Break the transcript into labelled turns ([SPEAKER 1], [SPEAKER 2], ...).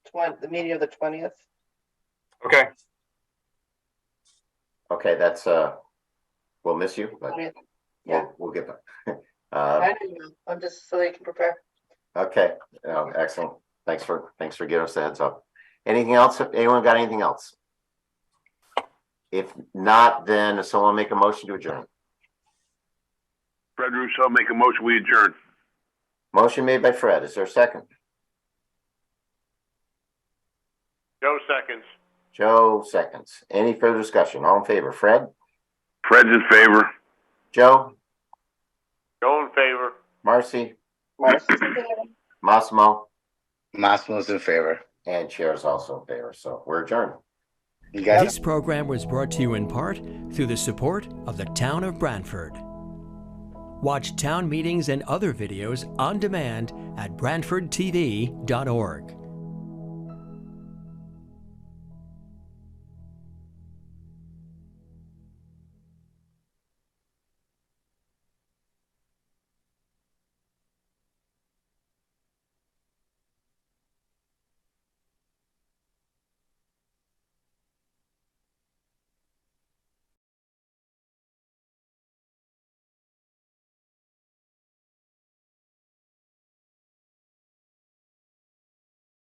[SPEAKER 1] twen, the meeting of the twentieth.
[SPEAKER 2] Okay,
[SPEAKER 3] Okay, that's, uh, we'll miss you, but
[SPEAKER 1] Yeah.
[SPEAKER 3] we'll, we'll get back. Uh,
[SPEAKER 1] I don't know, I'm just so they can prepare.
[SPEAKER 3] okay, uh, excellent. Thanks for, thanks for giving us the heads up. Anything else? Anyone got anything else? If not, then someone make a motion to adjourn.
[SPEAKER 4] Fred Russo, make a motion, we adjourn.
[SPEAKER 3] Motion made by Fred. Is there a second?
[SPEAKER 4] Joe seconds.
[SPEAKER 3] Joe seconds. Any further discussion? All in favor? Fred?
[SPEAKER 4] Fred's in favor.
[SPEAKER 3] Joe?
[SPEAKER 4] Joe in favor.
[SPEAKER 3] Marcy?
[SPEAKER 1] Marcy,
[SPEAKER 3] Massimo?
[SPEAKER 5] Massimo's in favor.
[SPEAKER 3] And Chair is also in favor, so we're adjourned.
[SPEAKER 5] You guys
[SPEAKER 6] This program was brought to you in part through the support of the Town of Brantford. Watch town meetings and other videos on demand at BrantfordTV.org.